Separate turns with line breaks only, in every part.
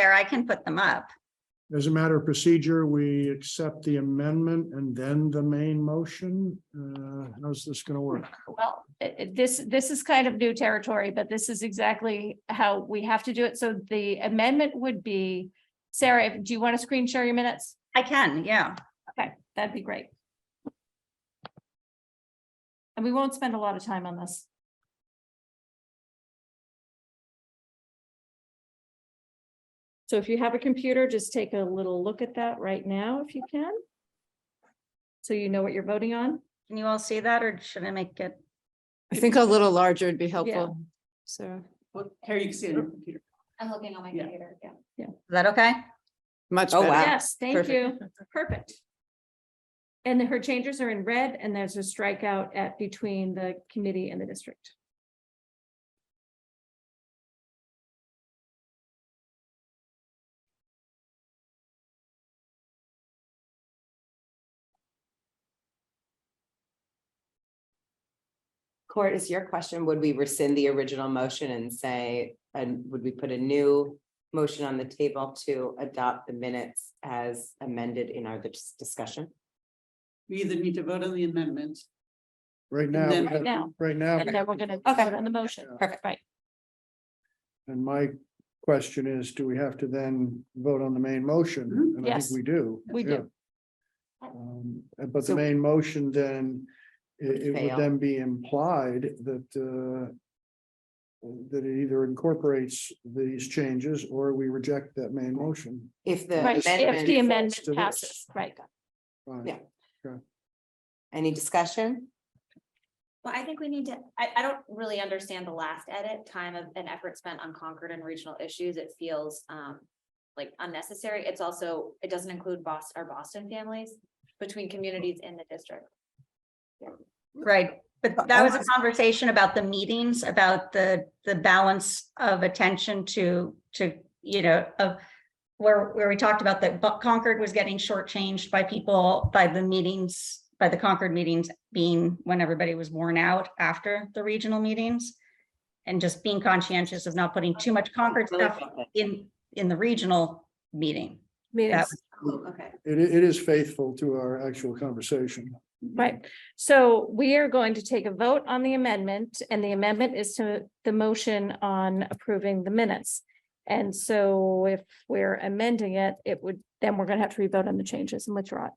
there, I can put them up.
As a matter of procedure, we accept the amendment and then the main motion. Uh, how's this gonna work?
Well, i- i- this, this is kind of new territory, but this is exactly how we have to do it. So the amendment would be, Sarah, if- do you want to screen share your minutes?
I can, yeah.
Okay, that'd be great. And we won't spend a lot of time on this. So if you have a computer, just take a little look at that right now if you can. So you know what you're voting on.
Can you all see that or should I make it?
I think a little larger would be helpful,
Oh,
so
Well, Carrie, you can see it on your computer.
I'm looking on my
Yeah.
computer, yeah.
Is that okay?
much
Oh,
better.
wow.
Yes, thank you.
Perfect.
Perfect. And her changes are in red and there's a strikeout at between the committee and the district.
Court, is your question, would we rescind the original motion and say, and would we put a new motion on the table to adopt the minutes as amended in our dis- discussion?
We either need to vote on the amendment.
Right now,
Then-
we have-
Now,
right now,
and then we're gonna
Okay.
vote on the motion.
Perfect.
Right.
and my question is, do we have to then vote on the main motion?
Mm-hmm.
Mhm.
And I
Yes.
think we do.
We
yeah.
do.
Um, But the
So-
main motion then, it, it would
Fail.
then be implied that, uh, that it either incorporates these changes or we reject that main motion.
If the
Right, if the
amendment,
amendment
to this.
passes, right.
Fine.
Yeah. any discussion?
Well, I think we need to, I, I don't really understand the last edit, time of and effort spent on Concord and regional issues. It feels, um, like unnecessary. It's also, it doesn't include Boston, our Boston families between communities in the district.
Right, but that was a conversation about the meetings, about the, the balance of attention to, to, you know, of where, where we talked about that Bu- Concord was getting shortchanged by people, by the meetings, by the Concord meetings being when everybody was worn out after the regional meetings. And just being conscientious of not putting too much Concord stuff in, in the regional meeting.
Meetings.
Oh, Okay.
It, i- it is faithful to our actual conversation.
Right, so we are going to take a vote on the amendment, and the amendment is to the motion on approving the minutes. And so if we're amending it, it would, then we're gonna have to revote on the changes and withdraw it.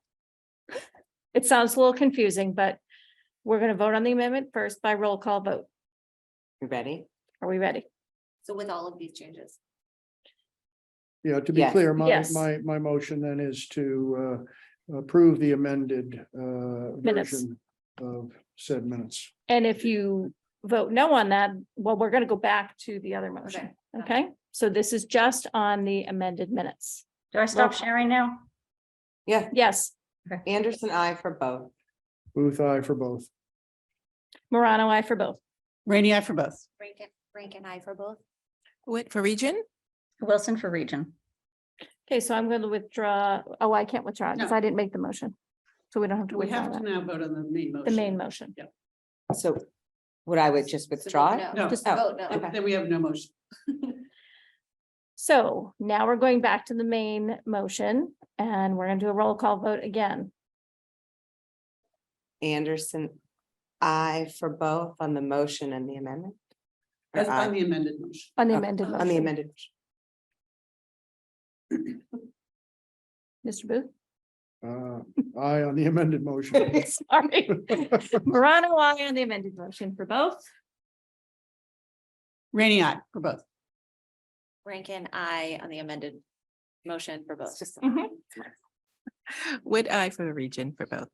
It sounds a little confusing, but we're gonna vote on the amendment first by roll call vote.
You Ready?
Are we ready?
So with all of these changes.
Yeah, to be
Yes.
clear, my,
Yes.
my, my motion then is to uh, approve the amended uh,
Minutes.
version of said minutes.
And if you vote no on that, well, we're gonna go back to the other motion, okay? So this is just on the amended minutes.
Do I
Roll
stop
call.
sharing now?
Yeah,
Yes,
Anderson, I for both.
Booth, I for both.
Morano, I for both.
Rainy eye for both.
Rankin, Rankin, I for both.
Wait, for region?
Wilson for region.
Okay, so I'm going to withdraw, oh, I can't withdraw because
No.
I didn't make the motion. So we don't have to
We
withdraw
have to
that,
now vote on the main motion.
the main motion.
So would I would just
So
withdraw it?
vote
No.
No, just
Oh,
vote no.
Then we have no motion.
So now we're going back to the main motion and we're going to do a roll call vote again.
Anderson, I for both on the motion and the amendment? Or
That's
aye?
on the amended motion.
On the
Okay,
amended
Uh, On the
motion,
amended. motion.
Mr. Booth?
Uh, I on the amended motion.
Sorry. Morano, I on the amended motion for both.
Rainy eye for both.
Rankin, I on the amended motion for both.
It's just-
Mm-hmm.
Mhm.
Would I for the region for both?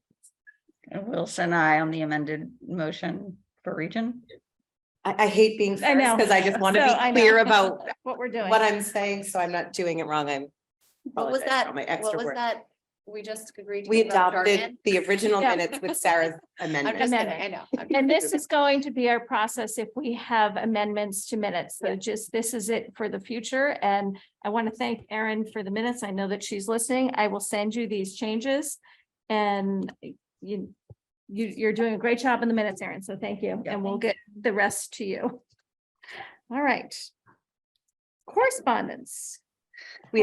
And Wilson, I on the amended motion for region.
I, I hate being
I
first
know.
because I just want
So
to
I
be
know
clear about
What we're doing.
what I'm saying, so I'm not doing it wrong. I'm.
What
apologize
was
for
that?
all My
What
extra
was
work.
that? We just agreed. to
We
about
adopted
jargon?
the original
Yeah.
minutes with Sarah's
I'm just
amendment.
kidding,
Amendment.
I know. I'm-
And this is going to be our process if we have amendments to minutes. So
Yeah.
just, this is it for the future. And I want to thank Erin for the minutes. I know that she's listening. I will send you these changes. And you, you, you're doing a great job in the minutes, Erin. So thank you.
Yeah.
And we'll get the rest to you. All right. Correspondence.